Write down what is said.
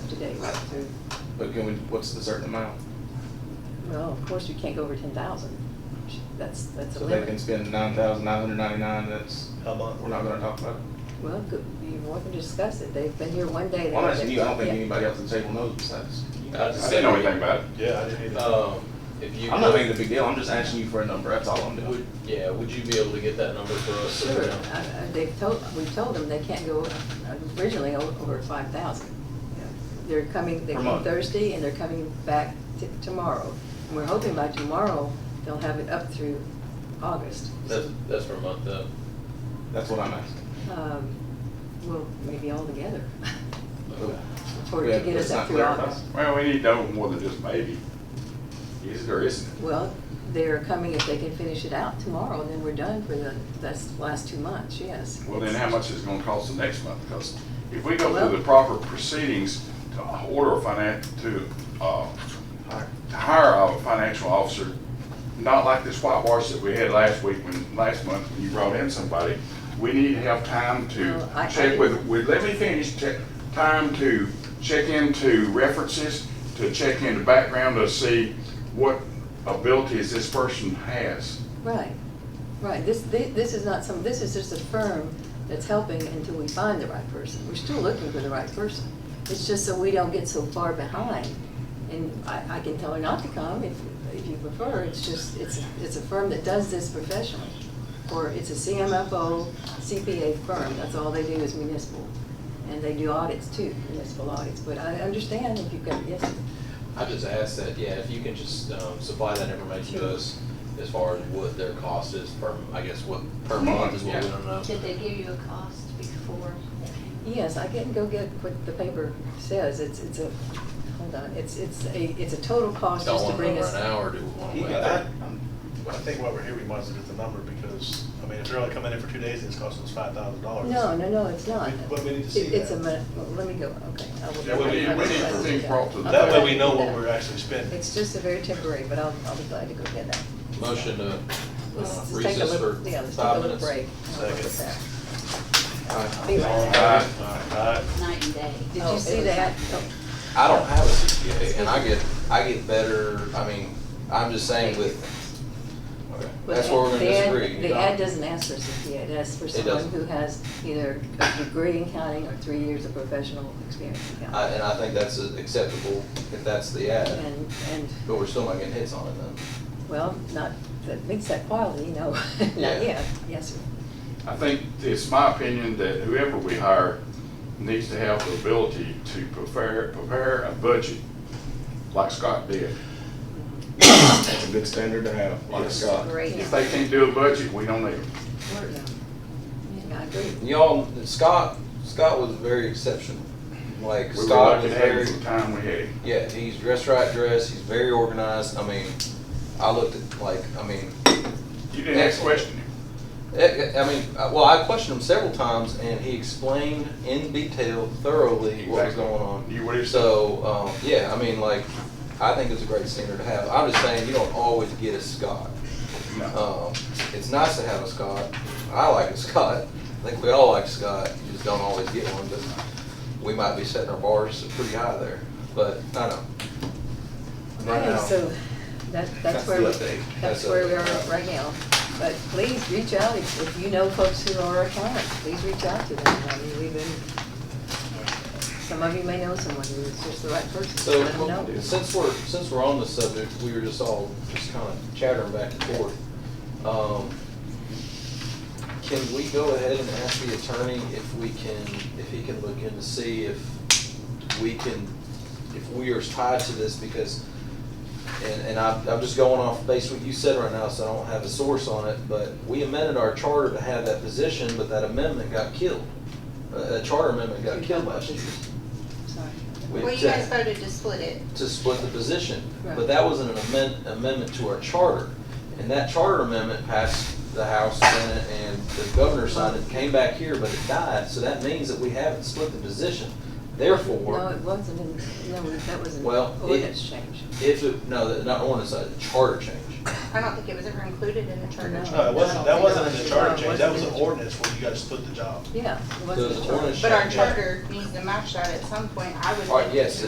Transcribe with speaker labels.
Speaker 1: day, right, so,
Speaker 2: But can we, what's the certain amount?
Speaker 1: well, of course, you can't go over ten thousand, that's, that's a
Speaker 2: So they
Speaker 1: limit.
Speaker 2: can spend nine thousand nine hundred ninety-nine, that's,
Speaker 3: a month.
Speaker 2: we're not gonna talk about
Speaker 1: Well, good, you're welcome to discuss it, they've been here one day. they
Speaker 2: it. Well,
Speaker 1: know
Speaker 2: that's
Speaker 1: that-
Speaker 2: you, I don't think
Speaker 1: yeah.
Speaker 2: anybody else at the table knows besides. you.
Speaker 4: I just didn't know anything about it.
Speaker 3: Yeah, I didn't either.
Speaker 5: Um, if you.
Speaker 2: I'm not making a big deal, I'm just asking you for a number, that's all I'm doing.
Speaker 5: Would, yeah, would you be able to get that number for us?
Speaker 1: Sure, uh, uh, they've told, we've told them they can't go uh, originally o- over five thousand. They're coming, they
Speaker 2: Per
Speaker 1: came
Speaker 2: month.
Speaker 1: Thursday and they're coming back t- tomorrow. And we're hoping by tomorrow, they'll have it up through August.
Speaker 5: That's, that's for a month, uh,
Speaker 2: That's what I'm asking.
Speaker 1: Um, Well, maybe all together,
Speaker 2: Okay.
Speaker 1: for,
Speaker 2: Yeah,
Speaker 1: to get
Speaker 2: let's
Speaker 1: us
Speaker 2: not
Speaker 1: up through
Speaker 2: clarify.
Speaker 1: August.
Speaker 4: Well, we need to know more than just maybe. Is it or isn't it?
Speaker 1: Well, they're coming if they can finish it out tomorrow, and then we're done for the, that's the last two months, yes.
Speaker 4: Well, then how much is it gonna cost the next month? Because if we go
Speaker 1: Well-
Speaker 4: through the proper proceedings to order a finance, to, uh, to hire a financial officer, not like this whitewash that we had last week when, last month, when you brought in somebody, we need to have time
Speaker 1: Well, I- I
Speaker 4: to check with, with, let me finish, check, time to check into references, to check into background to see what abilities this person has.
Speaker 1: Right, right. This, thi- this is not some, this is just a firm that's helping until we find the right person. We're still looking for the right person. It's just so we don't get so far behind. And I, I can tell her not to come if, if you prefer. It's just, it's, it's a firm that does this professionally. Or it's a CMFO CPA firm. That's all they do is municipal. And they do audits too, municipal audits. But I understand if you've got, yes,
Speaker 5: I just asked that, yeah, if you can just, um, supply that information to us as far as what their cost is per, I guess, what, per month is what we don't know.
Speaker 6: Did they give you a cost before?
Speaker 1: Yes, I can go get what the paper says. It's, it's a, hold on, it's, it's a, it's a total cost
Speaker 5: Don't
Speaker 1: just to
Speaker 5: want to
Speaker 1: bring
Speaker 5: know
Speaker 1: us.
Speaker 5: right now, or do we want to
Speaker 3: He
Speaker 5: wait?
Speaker 3: got that. I think while we're here, we might as well get the number because, I mean, if they're only coming in for two days and Oh, it's costing us five thousand dollars.
Speaker 1: No, no, no, it's not.
Speaker 3: But we need to
Speaker 1: It-
Speaker 3: see
Speaker 1: It's a,
Speaker 3: that.
Speaker 1: min- well, let me go, okay. I will-
Speaker 3: Yeah, we need- we need to
Speaker 4: be brought to the-
Speaker 3: That way we
Speaker 1: Okay.
Speaker 3: know what we're actually spending.
Speaker 1: It's just a very temporary, but I'll, I'll be glad to go get that.
Speaker 5: Motion to uh,
Speaker 1: Let's just take a
Speaker 5: recess for
Speaker 1: little, yeah, let's take a
Speaker 5: five
Speaker 1: little
Speaker 5: minutes.
Speaker 1: break. I'll look at
Speaker 3: Second.
Speaker 1: that.
Speaker 2: Alright.
Speaker 1: Be right back.
Speaker 4: Aye.
Speaker 3: All right.
Speaker 6: Night and day.
Speaker 1: Did
Speaker 6: Oh,
Speaker 1: you
Speaker 6: it
Speaker 1: see
Speaker 6: was-
Speaker 1: that?
Speaker 5: I don't have a CPA, and I get, I get better, I mean, I'm just saying with, that's where we're gonna
Speaker 1: The ad-
Speaker 5: disagree.
Speaker 1: The ad doesn't ask for CPA, it asks for someone
Speaker 5: doesn't.
Speaker 1: who has either a degree in counting or three years of professional experience in
Speaker 5: I- uh,
Speaker 1: counting.
Speaker 5: And I think that's acceptable if that's the ad,
Speaker 1: And, and,
Speaker 5: but we're still not getting hits on it then.
Speaker 1: well, not, that makes that quality, no, not
Speaker 5: Yeah.
Speaker 1: yet, yes, sir.
Speaker 4: I think it's my opinion that whoever we hire needs to have the ability to prepare, prepare a budget like Scott did.
Speaker 2: That's a good standard to have, like
Speaker 4: Yes.
Speaker 2: Scott.
Speaker 6: Great.
Speaker 4: If they can't do a budget, we don't need them.
Speaker 1: Yeah. um, Yeah, I agree.
Speaker 5: Y'all, Scott, Scott was very exceptional. Like
Speaker 4: We were
Speaker 5: Scott
Speaker 4: lucky
Speaker 5: was
Speaker 4: to have him
Speaker 5: very,
Speaker 4: for the time we had him.
Speaker 5: yeah, he's dressed right dressed, he's very organized. I mean, I looked at, like, I mean,
Speaker 4: You didn't
Speaker 5: Excellent.
Speaker 4: ask question him.
Speaker 5: eh, eh, I mean, uh, well, I questioned him several times and he explained in detail thoroughly what was
Speaker 4: Exactly.
Speaker 5: going on.
Speaker 4: You would have-
Speaker 5: So, um, yeah, I mean, like, I think it's a great standard to have. I'm just saying, you don't always get a Scott.
Speaker 4: No.
Speaker 5: Um, it's nice to have a Scott. I like a Scott. I think we all like Scott. You just don't always get one, but we might be setting our bars pretty high there. But I know.
Speaker 2: Right
Speaker 1: Okay,
Speaker 2: now.
Speaker 1: So, that,
Speaker 2: That's
Speaker 1: that's where,
Speaker 2: the
Speaker 1: we-
Speaker 2: update.
Speaker 5: That's
Speaker 1: that's where we are
Speaker 5: update.
Speaker 1: right now. But please reach out, if, if you know folks who are accountants, please reach out to them, I mean, we've been, some of you may know someone who's just the right person,
Speaker 5: So
Speaker 1: let them know.
Speaker 5: since we're since we're on the subject, we were just all just kind of chattering back and forth. Um, can we go ahead and ask the attorney if we can if he can look in to see if we can if we are tied to this because and, and I'm, I'm just going off based what you said right now, so I don't have a source on it, but we amended our charter to have that position, but that amendment got killed. Uh, a charter amendment got killed last year.
Speaker 1: Sorry.
Speaker 5: We-
Speaker 6: Well, you guys voted to split it.
Speaker 5: to split the position.
Speaker 1: Right.
Speaker 5: But that was an amend- amendment to our charter. And that charter amendment passed the House, Senate, and the governor signed it, came back here, but it died. So that means that we haven't split the position.
Speaker 1: No, it
Speaker 5: Therefore,
Speaker 1: wasn't, in- no, that was an
Speaker 5: Well, it-
Speaker 1: ordinance change.
Speaker 5: if, it- no, that- not ordinance, a charter change.
Speaker 6: I don't think it was ever included in the charter.
Speaker 1: No.
Speaker 3: No, it wasn't, that wasn't in the charter change, that was an
Speaker 1: No, it wasn't.
Speaker 3: ordinance where you guys split the job.
Speaker 1: Yeah, it
Speaker 5: There was
Speaker 1: wasn't.
Speaker 5: an
Speaker 1: a charge.
Speaker 5: ordinance
Speaker 6: But our
Speaker 5: change.
Speaker 6: charter needs to match that at some point, I would.
Speaker 5: All right,
Speaker 6: think.
Speaker 5: yes,